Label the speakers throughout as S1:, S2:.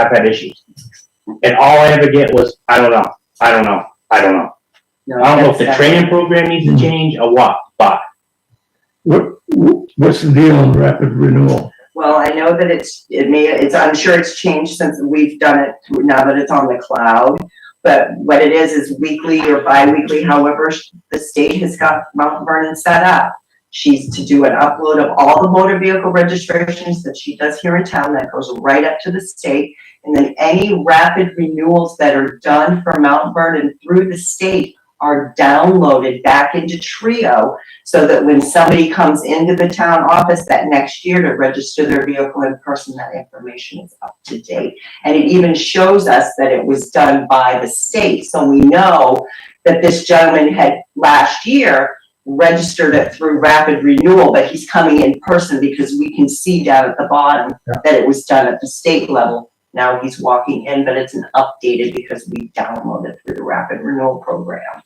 S1: I've had issues. And all I ever get was, I don't know, I don't know, I don't know. I don't know if the training program needs to change or what, but
S2: What, what's the deal on rapid renewal?
S3: Well, I know that it's, it may, it's, I'm sure it's changed since we've done it, now that it's on the cloud. But what it is, is weekly or bi-weekly, however, sh- the state has got Mount Vernon set up. She's to do an upload of all the motor vehicle registrations that she does here in town, that goes right up to the state. And then any rapid renewals that are done for Mount Vernon through the state are downloaded back into Trio so that when somebody comes into the town office that next year to register their vehicle in person, that information is up to date. And it even shows us that it was done by the state, so we know that this gentleman had last year registered it through rapid renewal, but he's coming in person because we can see down at the bottom that it was done at the state level. Now he's walking in, but it's an updated because we downloaded through the rapid renewal program.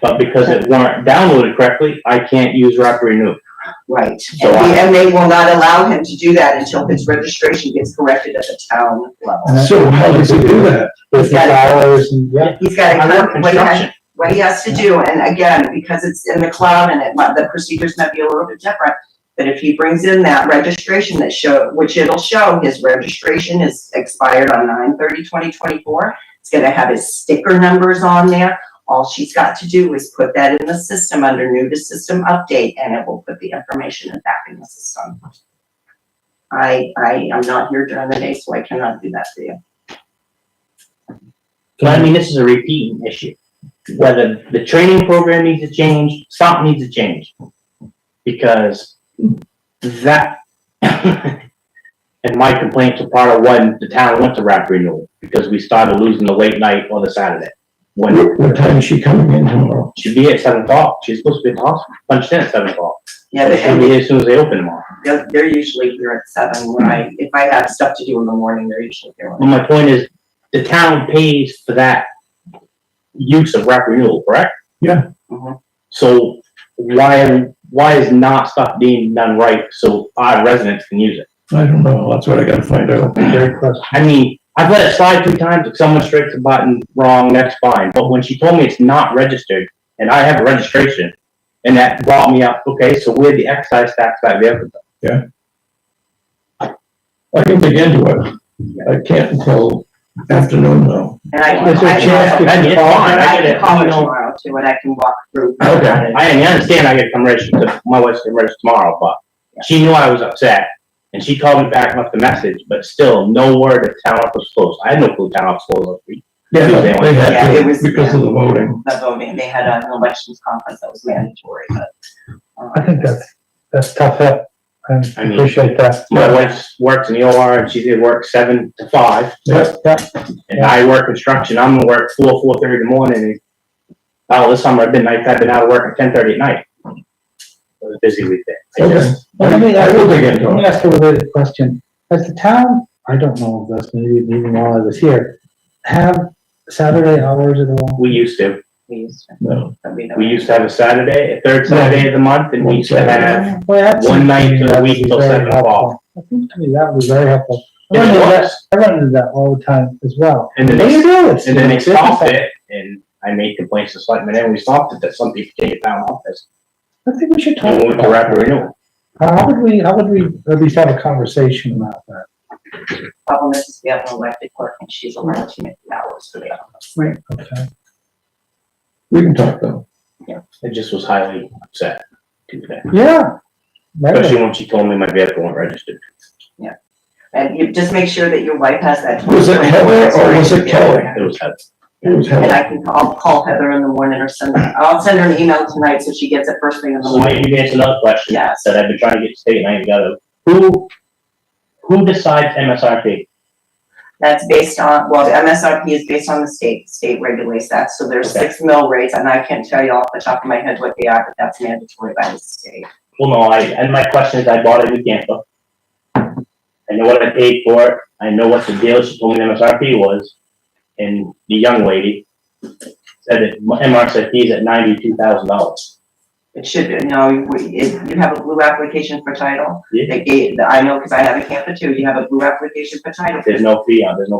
S1: but because it weren't downloaded correctly, I can't use Rapid Renew.
S3: Right,
S1: So
S3: and
S1: I-
S3: the- and they will not allow him to do that until his registration gets corrected at the town level.
S2: So how does it do that?
S3: Business
S2: hours and, yeah.
S3: He's gotta,
S1: I'm not
S3: come- what he has,
S1: construction.
S3: what he has to do, and again, because it's in the cloud and it, might- the procedures might be a little bit different. But if he brings in that registration that show, which it'll show, his registration is expired on 9/30, 2024. It's gonna have his sticker numbers on there. All she's got to do is put that in the system under new to system update and it will put the information in back in the system. I, I am not here during the day, so I cannot do that for you.
S1: But I mean, this is a repeating issue. Whether the training program needs to change, something needs to change. Because that, and my complaints are part of when the town went to Rapid Renew, because we started losing the late night on the Saturday. When
S2: What, what time is she coming in tomorrow?
S1: she'd be at seven o'clock, she's supposed to be at the hospital, punched in at seven o'clock.
S3: Yeah, but-
S1: She'll be here as soon as they open tomorrow.
S3: They're, they're usually here at seven, when I, if I have stuff to do in the morning, they're usually here.
S1: Well, my point is, the town pays for that use of rec renewal, correct?
S2: Yeah.
S3: Mhm.
S1: So why, why is not stuff being done right so our residents can use it?
S2: I don't know, that's what I gotta find out.
S1: I mean, I've let it slide three times, if someone strikes a button wrong, that's fine, but when she told me it's not registered, and I have a registration, and that brought me up, okay, so where the excise tax that vehicle?
S2: I can dig into it. I can't until afternoon though.
S3: And I can,
S2: Is there a
S3: I
S2: chance
S3: can,
S2: to-
S1: I get it, fine, I
S3: I
S1: get
S3: can
S1: it, you
S3: call her
S1: know.
S3: tomorrow too, and I can walk through.
S2: Okay.
S1: I, I understand I gotta come register, my wife's gonna register tomorrow, but she knew I was upset. And she called me back and left a message, but still, no word that town office was closed. I had no clue town office was closed. last week.
S2: Yeah, no, they
S3: Yeah,
S2: had
S3: it
S2: to,
S3: was-
S2: because of the voting.
S3: The voting, they had an elections conference that was mandatory, but. uh,
S4: I think that's, that's tough, help.
S1: I
S4: I
S1: mean-
S4: appreciate that.
S1: My wife works in the OR and she did work seven to five,
S4: Yeah, yeah,
S1: and I work construction. I'm gonna work four, four thirty in the morning. and Oh, this summer I've been, I've been out of work at ten thirty at night. It was a busy weekend. I
S2: Okay.
S1: just-
S4: Well, let me
S2: I
S4: ask
S2: will dig
S4: let
S2: into
S4: me
S2: it.
S4: ask a related question. Has the town, I don't know if that's maybe even while I was here, have Saturday hours at all?
S1: We used to,
S3: We used to,
S2: No,
S3: but we don't.
S1: we used to have a Saturday, a third Saturday of the month, and we used to have
S4: Boy, that's
S1: one night
S4: something
S1: to the
S4: that
S1: week
S4: would be
S1: till
S4: very
S1: seven o'clock.
S4: helpful. I think to me that was very helpful. I
S1: It
S4: run into that,
S1: was.
S4: I run into that all the time as well.
S1: And then
S4: They
S1: they,
S4: do this.
S1: and then they stopped it, and I made complaints to selectmen, and we stopped it, that some people take it down office.
S4: I think we should talk
S1: And we went to
S4: about
S1: rapid
S4: that.
S1: renewal.
S4: How would we, how would we at least have a conversation about that?
S3: Problem is, we have an elected clerk and she's allowed to make the hours for the office.
S4: Okay.
S2: we can talk though.
S1: It just was highly upset to that,
S4: Yeah. Right.
S1: especially when she told me my vehicle wasn't registered.
S3: And you just make sure that your wife has that.
S2: Was it Heather or Oh, was it Kelly?
S1: It was, had-
S2: It was
S3: And
S2: Heather.
S3: I can, I'll call Heather in the morning or send, her- I'll send her an email tonight so she gets it first thing in the
S1: so
S3: morning.
S1: maybe you answer another question
S3: Yes.
S1: that I've been trying to get to state, and I ain't got it. Who, who decides MSRP?
S3: That's based on, well, the MSRP is based on the state, state regulates that, so there's
S1: Okay.
S3: six mill rates, and I can't tell you off the top of my head what they are, but that's mandatory by the state.
S1: Well, no, I, and my question is, I bought a new camper. I know what I paid for it, I know what the deal, she told me the MSRP was, and the young lady said that my MSRP is at ninety-two thousand dollars.
S3: It should, be- no, you- if you have a blue application for title,
S1: Yeah.
S3: they gave, I know, because I have a camper too, you have a blue application for title,
S1: There's no fee on, there's no